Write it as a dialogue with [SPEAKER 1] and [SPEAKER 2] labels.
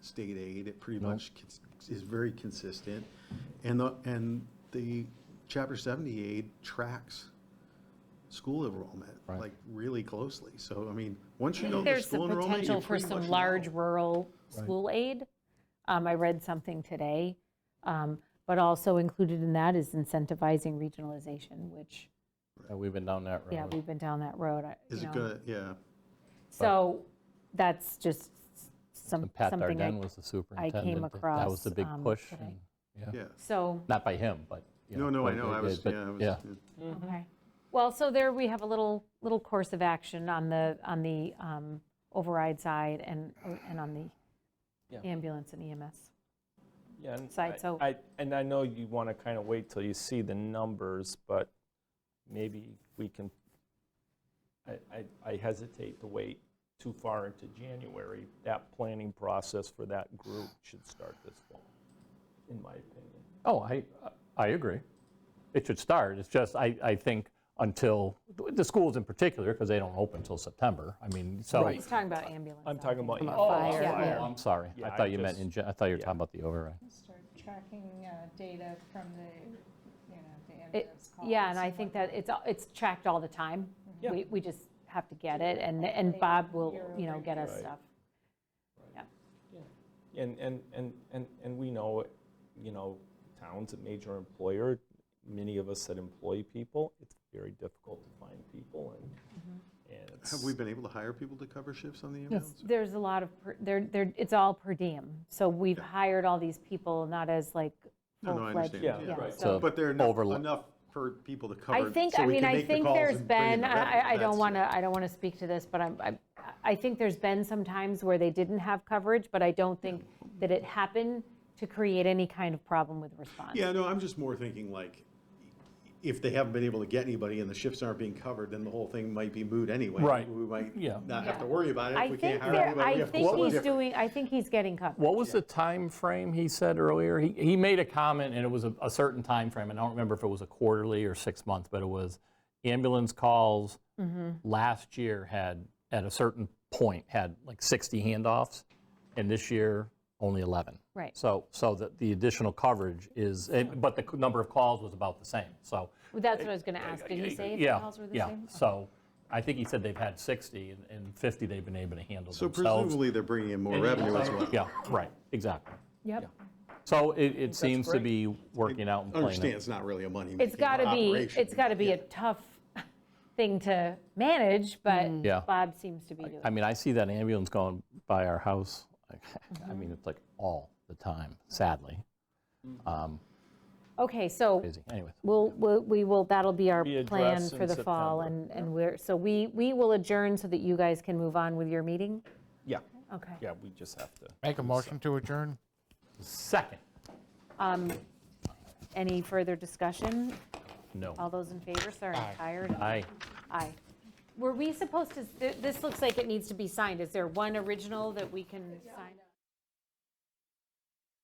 [SPEAKER 1] state aid. It pretty much cons- is very consistent. And the, and the chapter seventy aid tracks school enrollment,
[SPEAKER 2] Right.
[SPEAKER 1] like really closely. So, I mean, once you know the
[SPEAKER 3] There's the
[SPEAKER 1] school enrollment, you
[SPEAKER 3] potential for
[SPEAKER 1] pretty much
[SPEAKER 3] some
[SPEAKER 1] know.
[SPEAKER 3] large rural
[SPEAKER 2] Right.
[SPEAKER 3] school aid. Um, I read something today, um, but also included in that is incentivizing regionalization, which,
[SPEAKER 2] Uh, We've been down that
[SPEAKER 3] yeah,
[SPEAKER 2] road.
[SPEAKER 3] we've been down that road. I-
[SPEAKER 1] Is
[SPEAKER 3] you
[SPEAKER 1] it
[SPEAKER 3] know.
[SPEAKER 1] gonna, yeah.
[SPEAKER 3] So that's just some,
[SPEAKER 2] And Pat
[SPEAKER 3] something
[SPEAKER 2] Darden
[SPEAKER 3] I,
[SPEAKER 2] was the superintendent. that- That was
[SPEAKER 3] across,
[SPEAKER 2] the big
[SPEAKER 3] um,
[SPEAKER 2] push.
[SPEAKER 3] today.
[SPEAKER 2] and-
[SPEAKER 1] Yeah.
[SPEAKER 3] so,
[SPEAKER 2] Not by him, but. you
[SPEAKER 1] No, no, I
[SPEAKER 2] but
[SPEAKER 1] know,
[SPEAKER 2] it-
[SPEAKER 1] I
[SPEAKER 2] it-
[SPEAKER 1] was,
[SPEAKER 2] but-
[SPEAKER 1] yeah, I was,
[SPEAKER 2] Yeah,
[SPEAKER 1] yeah.
[SPEAKER 3] okay. Well, so there we have a little, little course of action on the, on the um, override side and, and on the
[SPEAKER 4] Yeah.
[SPEAKER 3] ambulance and E EMS.
[SPEAKER 4] Yeah, and
[SPEAKER 3] side,
[SPEAKER 4] I-
[SPEAKER 3] so-
[SPEAKER 4] I, and I know you want to kind of wait till you see the numbers, but maybe we can, I, I- I hesitate to wait too far into January. That planning process for that group should start this fall, in my opinion.
[SPEAKER 2] Oh, I, I agree. It should start. It's just, I, I think until, the schools in particular, because they don't open until September. I mean, so.
[SPEAKER 3] He's talking about ambulance.
[SPEAKER 4] I'm
[SPEAKER 3] I
[SPEAKER 4] talking
[SPEAKER 3] think.
[SPEAKER 4] about.
[SPEAKER 3] About
[SPEAKER 4] Oh,
[SPEAKER 3] fire.
[SPEAKER 4] sorry.
[SPEAKER 2] Oh,
[SPEAKER 3] Yeah.
[SPEAKER 2] I'm sorry. I
[SPEAKER 4] Yeah, I
[SPEAKER 2] thought you meant,
[SPEAKER 4] just-
[SPEAKER 2] in gen- I thought you were
[SPEAKER 4] yeah.
[SPEAKER 2] talking about the override.
[SPEAKER 5] start tracking uh, data from the, you know, the
[SPEAKER 3] It-
[SPEAKER 5] ambulance calls.
[SPEAKER 3] Yeah, and I think that it's, al- it's tracked all the time.
[SPEAKER 4] Yeah.
[SPEAKER 3] We, we just have to get it, and, and Bob will, you know, get us
[SPEAKER 4] Right.
[SPEAKER 3] stuff.
[SPEAKER 4] And, and, and, and, and we know, you know, town's a major employer, many of us that employ people, it's very difficult to find people
[SPEAKER 3] Mm-hmm.
[SPEAKER 4] and, and it's.
[SPEAKER 1] Have we been able to hire people to cover shifts on the ambulance?
[SPEAKER 3] There's a lot of, per- there, there, it's all per diem, so we've
[SPEAKER 1] Yeah.
[SPEAKER 3] hired all these people, not as like
[SPEAKER 1] No, no, I
[SPEAKER 3] full-fledged.
[SPEAKER 1] understand,
[SPEAKER 4] Yeah,
[SPEAKER 1] yeah.
[SPEAKER 4] right.
[SPEAKER 3] so-
[SPEAKER 1] But there are enough,
[SPEAKER 2] Overla-
[SPEAKER 1] enough for people to cover.
[SPEAKER 3] I think,
[SPEAKER 1] so
[SPEAKER 3] I
[SPEAKER 1] we
[SPEAKER 3] mean,
[SPEAKER 1] can
[SPEAKER 3] I
[SPEAKER 1] make the
[SPEAKER 3] think
[SPEAKER 1] calls
[SPEAKER 3] there's
[SPEAKER 1] and bring in
[SPEAKER 3] been,
[SPEAKER 1] the
[SPEAKER 3] I,
[SPEAKER 1] revenue.
[SPEAKER 3] I- I don't
[SPEAKER 1] That's-
[SPEAKER 3] want to, I don't want to speak to this, but I'm, I, I think there's been some times where they didn't have coverage, but I don't think that it happened to create any kind of problem with response.
[SPEAKER 1] Yeah, no, I'm just more thinking like, if they haven't been able to get anybody and the shifts aren't being covered, then the whole thing might be moot anyway.
[SPEAKER 2] Right.
[SPEAKER 1] We might
[SPEAKER 2] Yeah.
[SPEAKER 1] not have to
[SPEAKER 3] Yeah.
[SPEAKER 1] worry about it.
[SPEAKER 3] I
[SPEAKER 1] If we
[SPEAKER 3] think,
[SPEAKER 1] can't hire
[SPEAKER 3] there-
[SPEAKER 1] anybody, we
[SPEAKER 3] I
[SPEAKER 1] have to
[SPEAKER 3] think
[SPEAKER 1] do
[SPEAKER 3] he's
[SPEAKER 1] something
[SPEAKER 3] doing, I think he's getting covered.
[SPEAKER 2] What was the time frame he said earlier? He, he made a comment, and it was a, a certain time frame, and I don't remember if it was a quarterly or six months, but it was ambulance calls
[SPEAKER 3] Mm-hmm.
[SPEAKER 2] last year had, at a certain point, had like 60 handoffs, and this year, only 11.
[SPEAKER 3] Right.
[SPEAKER 2] So, so that the additional coverage is, and- but the c- number of calls was about the same, so.
[SPEAKER 3] Well, That's what I was going to ask. Did he say if the
[SPEAKER 2] Yeah,
[SPEAKER 3] calls were the
[SPEAKER 2] yeah.
[SPEAKER 3] same?
[SPEAKER 2] So I think he said they've had 60, and- and 50 they've been able to handle
[SPEAKER 1] So
[SPEAKER 2] themselves.
[SPEAKER 1] presumably they're bringing in more revenue as well.
[SPEAKER 2] Yeah, right, exactly.
[SPEAKER 3] Yep.
[SPEAKER 2] So it, it seems to be working out and
[SPEAKER 1] I
[SPEAKER 2] playing.
[SPEAKER 1] understand
[SPEAKER 2] out.
[SPEAKER 1] it's not really a money.
[SPEAKER 3] It's got to be, it's got to be a tough thing to manage, but
[SPEAKER 1] Mm-hmm.
[SPEAKER 2] Yeah.
[SPEAKER 3] Bob seems to be doing
[SPEAKER 2] I
[SPEAKER 3] it.
[SPEAKER 2] mean, I see that ambulance going by our house, like, I mean, it's like all the time, sadly.
[SPEAKER 3] Okay, so
[SPEAKER 2] Busy, anyways.
[SPEAKER 3] we'll, we'll- we will, that'll be our
[SPEAKER 4] Be
[SPEAKER 3] plan
[SPEAKER 4] addressed
[SPEAKER 3] for
[SPEAKER 4] in
[SPEAKER 3] the fall,
[SPEAKER 4] September.
[SPEAKER 3] and, and we're, so we, we will adjourn so that you guys can move on with your meeting?
[SPEAKER 4] Yeah,
[SPEAKER 3] Okay.
[SPEAKER 4] yeah, we just have to.
[SPEAKER 6] Make a motion to adjourn?
[SPEAKER 2] Second,
[SPEAKER 3] Any further discussion? All
[SPEAKER 2] no.
[SPEAKER 3] those in favor, sorry, I'm tired.
[SPEAKER 2] Aye.
[SPEAKER 3] Aye. Were we supposed to, th- this looks like it needs to be signed. Is there one original that we can sign?